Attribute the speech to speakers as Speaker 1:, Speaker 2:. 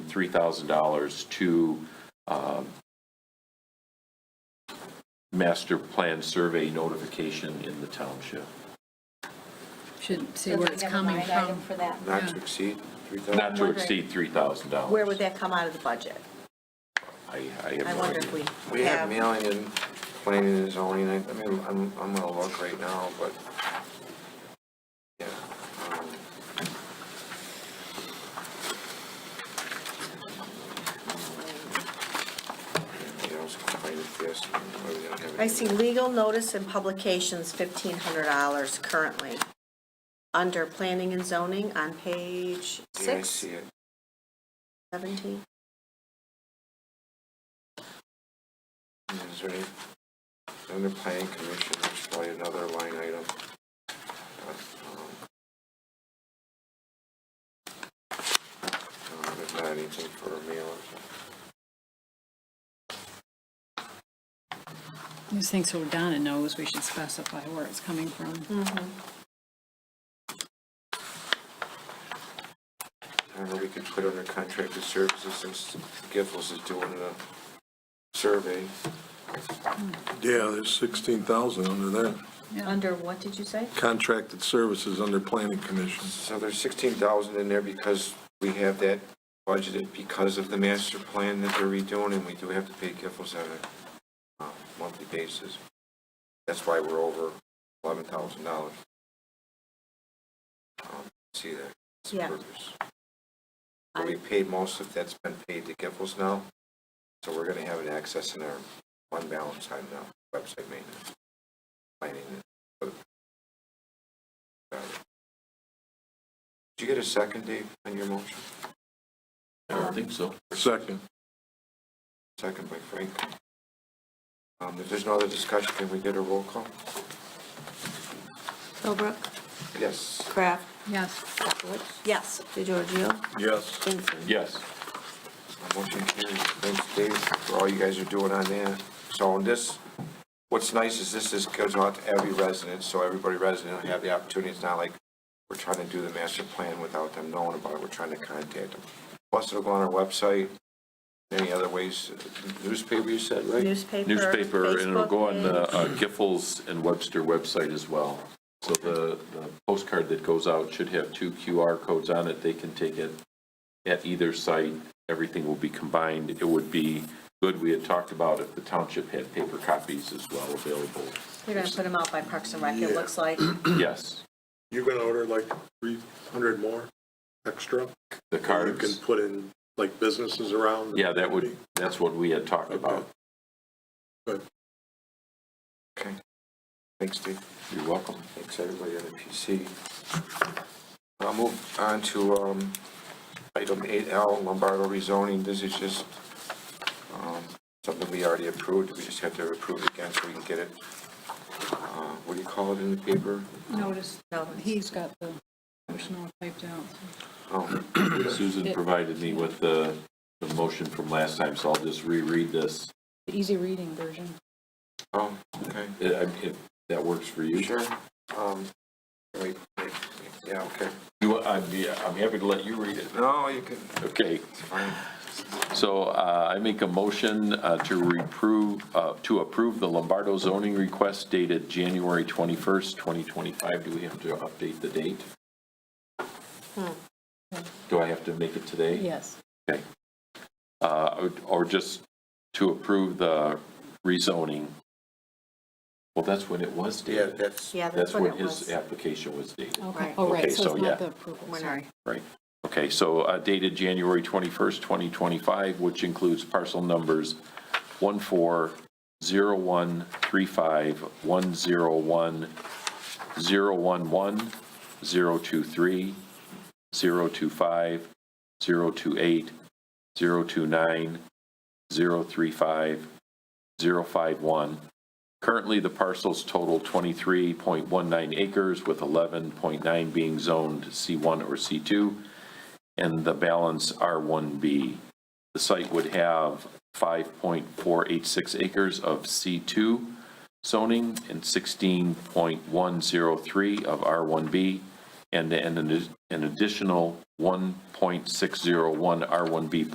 Speaker 1: three thousand dollars to um, master plan survey notification in the township,
Speaker 2: Should see where it's coming
Speaker 3: Doesn't we have a line item
Speaker 2: from.
Speaker 3: for that?
Speaker 4: Not to
Speaker 2: Yeah.
Speaker 4: exceed three
Speaker 1: not
Speaker 4: thousand?
Speaker 1: to exceed three thousand dollars.
Speaker 5: Where would that come out of the budget?
Speaker 1: I, I have
Speaker 5: I
Speaker 1: no
Speaker 5: wonder if
Speaker 1: idea.
Speaker 5: we
Speaker 4: We have
Speaker 5: have,
Speaker 4: mailing and planning and zoning, I I mean, I'm, I'm gonna look right now, but, yeah. um, yeah, I was quite impressed, but we don't have
Speaker 5: I
Speaker 4: any-
Speaker 5: see legal notice and publications, fifteen hundred dollars currently. Under planning and zoning on page
Speaker 4: Yeah, I
Speaker 5: six,
Speaker 4: see it.
Speaker 5: seventeen.
Speaker 4: Is there any, under planning commission, there's probably another line item. but, um, um, There's not anything for a meal or something.
Speaker 2: These things so Donna knows, we should specify where it's coming from.
Speaker 4: I don't know, we could put under contracted services since Giffords is doing the survey.
Speaker 6: Yeah, there's 16,000 under that.
Speaker 5: Under what did you say?
Speaker 6: Contracted services under planning commission.
Speaker 4: So there's sixteen thousand in there because we have that budgeted because of the master plan that they're redoing and we do have to pay Giffords on a uh, monthly basis. That's why we're over eleven thousand dollars. Um, See that? It's
Speaker 5: Yeah.
Speaker 4: purpose. But we paid most of that's been paid to Giffords now, so we're gonna have an excess in our fund balance on now, website maintenance. Planning. and- Got it. Did you get a second, Dave, on your motion?
Speaker 1: I don't think so.
Speaker 6: Second.
Speaker 4: Second by Frank. Um, if there's no other discussion, can we get a roll call?
Speaker 7: Philbrook,
Speaker 4: Yes.
Speaker 7: Kraft,
Speaker 2: Yes.
Speaker 7: Capelitz,
Speaker 5: Yes.
Speaker 7: DeGiorgio,
Speaker 6: Yes.
Speaker 7: Vincent.
Speaker 1: Yes,
Speaker 4: My Motion carries. Thanks, Dave, for all you guys are doing on there. So on this, what's nice is this is goes out to every resident, so everybody resident will have the opportunity. It's not like we're trying to do the master plan without them knowing about it. We're trying to contact them. Plus, it'll go on our website, any other ways, newspaper you said, right?
Speaker 5: Newspaper.
Speaker 1: newspaper, and it'll
Speaker 5: Facebook
Speaker 1: go on the
Speaker 5: page.
Speaker 1: uh, Giffords and Webster website as well. So the the postcard that goes out should have two QR codes on it, they can take it at either site, everything will be combined. It would be good, we had talked about if the township had paper copies as well available.
Speaker 5: They're gonna put them out by Parks and Rec, it looks like.
Speaker 1: Yes,
Speaker 8: You're gonna order like three hundred more extra?
Speaker 1: the
Speaker 8: You can
Speaker 1: cards,
Speaker 8: put in like businesses around?
Speaker 1: yeah, that would, that's what we had talked about.
Speaker 8: Good.
Speaker 4: Okay. Thanks, Dave.
Speaker 1: You're welcome.
Speaker 4: Thanks, everybody on the PC. I'll move on to um, item 8L, Lombardo rezoning. This is just um, something we already approved. We just have to approve it again so we can get it, uh, what do you call it in the paper?
Speaker 2: Notice, he's got the motion all typed out. so-
Speaker 4: Oh,
Speaker 1: Susan provided me with the, the motion from last time, so I'll just reread this,
Speaker 2: Easy reading version.
Speaker 4: oh, okay,
Speaker 1: Uh, I- if that works for you.
Speaker 4: sure. Um, Wait, wait, yeah, okay.
Speaker 1: You, I'm, yeah, I'm happy to let you read it.
Speaker 4: No, you can,
Speaker 1: Okay,
Speaker 4: it's fine.
Speaker 1: so uh, I make a motion uh, to reprove, uh, to approve the Lombardo zoning request dated January 21st, 2025. Do we have to update the date? Do I have to make it today?
Speaker 2: Yes.
Speaker 1: Okay. Uh, or- Or just to approve the rezoning? Well, that's when it was
Speaker 4: Yeah,
Speaker 1: dated.
Speaker 4: that's,
Speaker 5: Yeah,
Speaker 1: That's
Speaker 5: that's what
Speaker 1: when
Speaker 5: it
Speaker 1: his
Speaker 5: was.
Speaker 1: application was dated.
Speaker 2: Okay, oh,
Speaker 1: Okay,
Speaker 2: right, so
Speaker 1: so,
Speaker 2: it's
Speaker 1: yeah.
Speaker 2: not the approval,
Speaker 5: We're not-
Speaker 2: sorry.
Speaker 1: Right. Okay, so uh, dated January 21st, 2025, which includes parcel numbers 140135, 101, 011, 023, 025, 028, 029, 035, 051. Currently, the parcels total 23.19 acres, with 11.9 being zoned C1 or C2, and the balance R1B. The site would have 5.486 acres of C2 zoning and 16.103 of R1B, and and an an additional 1.601 R1B